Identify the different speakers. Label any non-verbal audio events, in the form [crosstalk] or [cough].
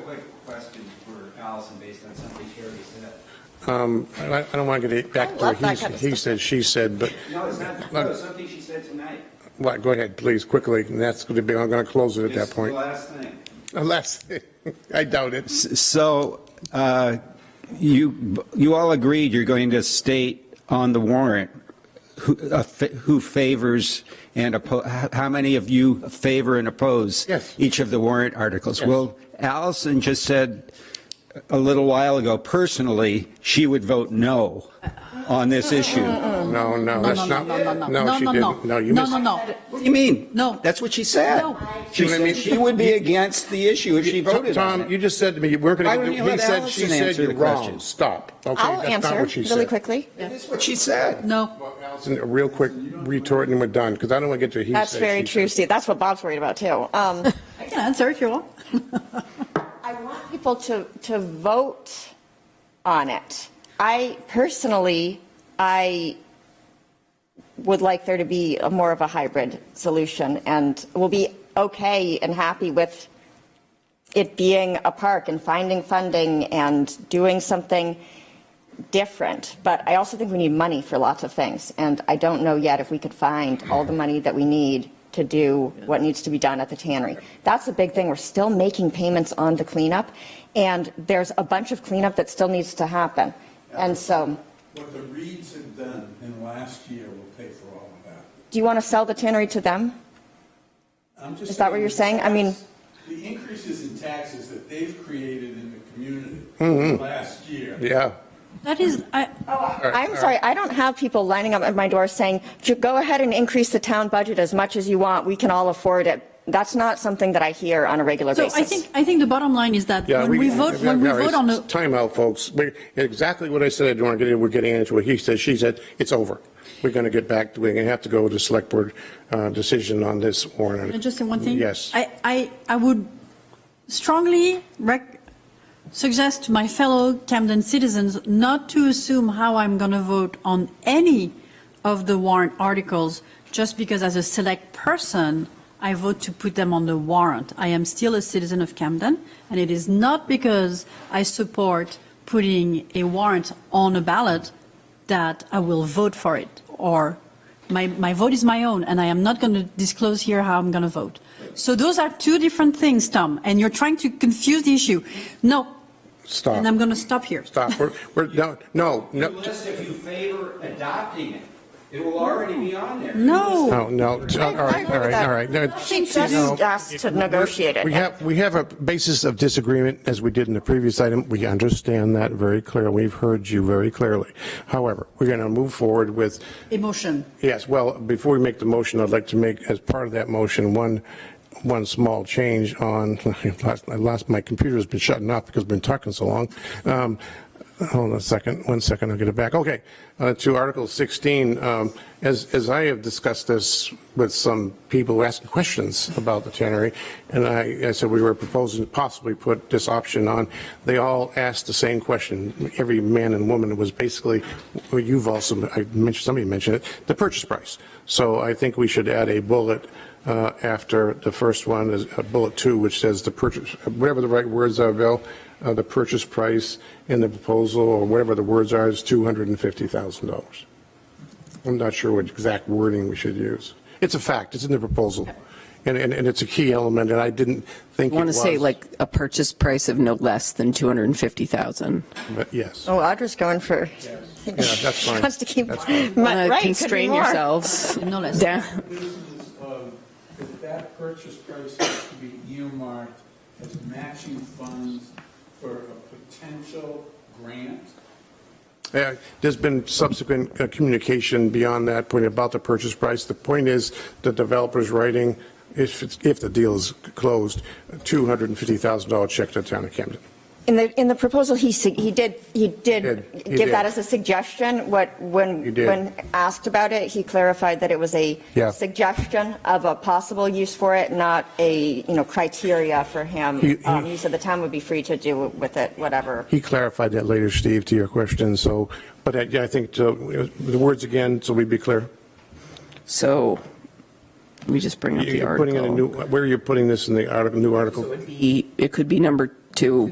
Speaker 1: quick question for Allison, based on something Sherry said.
Speaker 2: Um, I I don't want to get
Speaker 3: I
Speaker 2: back to
Speaker 3: love that
Speaker 2: he
Speaker 3: kind of
Speaker 2: he
Speaker 3: stuff.
Speaker 2: said, she said, but,
Speaker 1: No, it's not, no, it's something she said tonight.
Speaker 2: what, go ahead, please, quickly, and that's going to be, I'm going to close it at
Speaker 1: This
Speaker 2: that
Speaker 1: is the
Speaker 2: point. [laughs]
Speaker 1: last thing.
Speaker 2: Unless, I doubt it.
Speaker 4: So uh, you, you all agreed you're going to state on the warrant who uh, fa- who favors and oppo, h- how many of you favor and oppose?
Speaker 2: Yes.
Speaker 4: Each of the warrant articles.
Speaker 2: Yes.
Speaker 4: Well, Allison just said a little while ago, personally, she would vote no on this issue. What
Speaker 2: No, no,
Speaker 3: No,
Speaker 2: Oh, that's
Speaker 3: no,
Speaker 2: not,
Speaker 3: no, no, no.
Speaker 2: no, she didn't. No, you
Speaker 3: No,
Speaker 2: missed.
Speaker 3: no, no.
Speaker 4: do you mean?
Speaker 3: No.
Speaker 4: That's what she said.
Speaker 3: No.
Speaker 4: She
Speaker 2: You know what I
Speaker 4: said
Speaker 2: mean?
Speaker 4: she would be against the issue if she voted on
Speaker 2: Oh, Tom, you
Speaker 4: it.
Speaker 2: just said to me, you weren't
Speaker 4: Why
Speaker 2: going to
Speaker 4: wouldn't
Speaker 2: do,
Speaker 4: you
Speaker 2: he
Speaker 4: let
Speaker 2: said,
Speaker 4: Allison
Speaker 2: she said,
Speaker 4: answer
Speaker 2: you're
Speaker 4: the
Speaker 2: wrong,
Speaker 4: question?
Speaker 2: stop. Okay,
Speaker 3: I'll
Speaker 2: that's not
Speaker 3: answer
Speaker 2: what she
Speaker 3: really
Speaker 2: said.
Speaker 3: quickly.
Speaker 4: That's what she said.
Speaker 3: No,
Speaker 2: Allison, a real quick retort and we're done, because I don't want to get to he said,
Speaker 3: That's very
Speaker 2: she
Speaker 3: true,
Speaker 2: said.
Speaker 3: Steve. That's what Bob's worried about too. Um,
Speaker 5: [laughs] I can answer if you want.
Speaker 3: I want people to, to vote on it. I personally, I would like there to be a more of a hybrid solution and will be okay and happy with it being a park and finding funding and doing something different. But I also think we need money for lots of things. And I don't know yet if we could find all the money that we need to do what needs to be done at the tannery. That's a big thing. We're still making payments on the cleanup. And there's a bunch of cleanup that still needs to happen. And so,
Speaker 6: What the Reeds had done in last year will pay for all of that.
Speaker 3: do you want to sell the tannery to them?
Speaker 6: I'm just
Speaker 3: Is that what you're saying? I mean-
Speaker 6: The increases in taxes that they've created in the community last year.
Speaker 2: Yeah.
Speaker 5: That is, I,
Speaker 3: Oh, I'm sorry, I don't have people lining up at my door saying, "Ju- go ahead and increase the town budget as much as you want, we can all afford it. That's not something that I hear on a regular
Speaker 5: so
Speaker 3: basis.
Speaker 5: I think, I think the bottom line is that
Speaker 2: Yeah,
Speaker 5: when we vote, when we
Speaker 2: yeah,
Speaker 5: vote on a,
Speaker 2: it's Timeout, folks. We- Exactly what I said, I don't want to get in, we're getting into what he said, she said, it's over. We're going to get back, we're going to have to go to select board uh, decision on this warrant.
Speaker 5: Can I just say one thing?
Speaker 2: Yes.
Speaker 5: I, I, I would strongly rec, suggest to my fellow Camden citizens not to assume how I'm going to vote on any of the warrant articles just because as a select person, I vote to put them on the warrant. I am still a citizen of Camden, and it is not because I support putting a warrant on a ballot that I will vote for it or my, my vote is my own, and I am not going to disclose here how I'm going to vote. So those are two different things, Tom, and you're trying to confuse the issue. No,
Speaker 2: Stop,
Speaker 5: and I'm going to stop here.
Speaker 2: stop, we're, we're, no, no,
Speaker 1: You
Speaker 2: no,
Speaker 1: list if you favor adopting it. It will already be on there.
Speaker 2: no,
Speaker 5: No.
Speaker 2: no, all right, all right, all right. No,
Speaker 3: She just
Speaker 2: no.
Speaker 3: asked to negotiate it.
Speaker 2: We have, we have a basis of disagreement, as we did in the previous item. We understand that very clearly. We've heard you very clearly. However, we're going to move forward with
Speaker 5: Emotion.
Speaker 2: Yes, well, before we make the motion, I'd like to make, as part of that motion, one, one small change on, [laughs] I lost- I lost, my computer's been shutting off because I've been talking so long. Um, Hold on a second, one second, I'll get it back. Okay, uh, to Article 16, um, as, as I have discussed this with some people who asked questions about the tannery, and I, I said we were proposing to possibly put this option on, they all asked the same question. Every man and woman was basically, well, you've also, I mentioned, somebody mentioned it, the purchase price. So I think we should add a bullet uh, after the first one, is uh, bullet two, which says the purchase, whatever the right words are, Bill, uh, the purchase price in the proposal, or whatever the words are, is $250,000. I'm not sure what exact wording we should use. It's a fact, it's in the proposal, and, and and it's a key element, and I didn't think it
Speaker 7: want to say
Speaker 2: was,
Speaker 7: like a purchase price of no less than 250,000.
Speaker 2: But yes.
Speaker 3: Oh, Audra's going for. [laughs]
Speaker 2: that's fine.
Speaker 3: Wants to keep,
Speaker 2: That's
Speaker 3: right,
Speaker 2: fine.
Speaker 7: Want to
Speaker 3: could be
Speaker 7: constrain
Speaker 3: more.
Speaker 7: yourselves
Speaker 5: No less.
Speaker 7: down.
Speaker 6: This is, uh, that that purchase price has to be earmarked as matching funds for a potential grant.
Speaker 2: Yeah, There's been subsequent uh, communication beyond that point about the purchase price. The point is, the developer's writing, if, it's- if the deal is closed, a $250,000 check to the town of Camden.
Speaker 3: In the, in the proposal, he, sug- he did, he did
Speaker 2: Did. He
Speaker 3: give that
Speaker 2: did.
Speaker 3: as a suggestion. What,
Speaker 2: He
Speaker 3: when,
Speaker 2: did.
Speaker 3: when asked about it, he clarified that it was a
Speaker 2: Yeah.
Speaker 3: suggestion of a possible use for it, not a, you know, criteria for
Speaker 2: He-
Speaker 3: him.
Speaker 2: he-
Speaker 3: Um, He said the town would be free to do with it, whatever.
Speaker 2: He clarified that later, Steve, to your question, so, but I yeah, I think, uh, the words again, so we'd be clear.
Speaker 7: So we just bring up the
Speaker 2: You're putting in a new,
Speaker 7: article.
Speaker 2: where are you putting this in the article, new
Speaker 7: So
Speaker 2: article?
Speaker 7: it'd be- It could be number to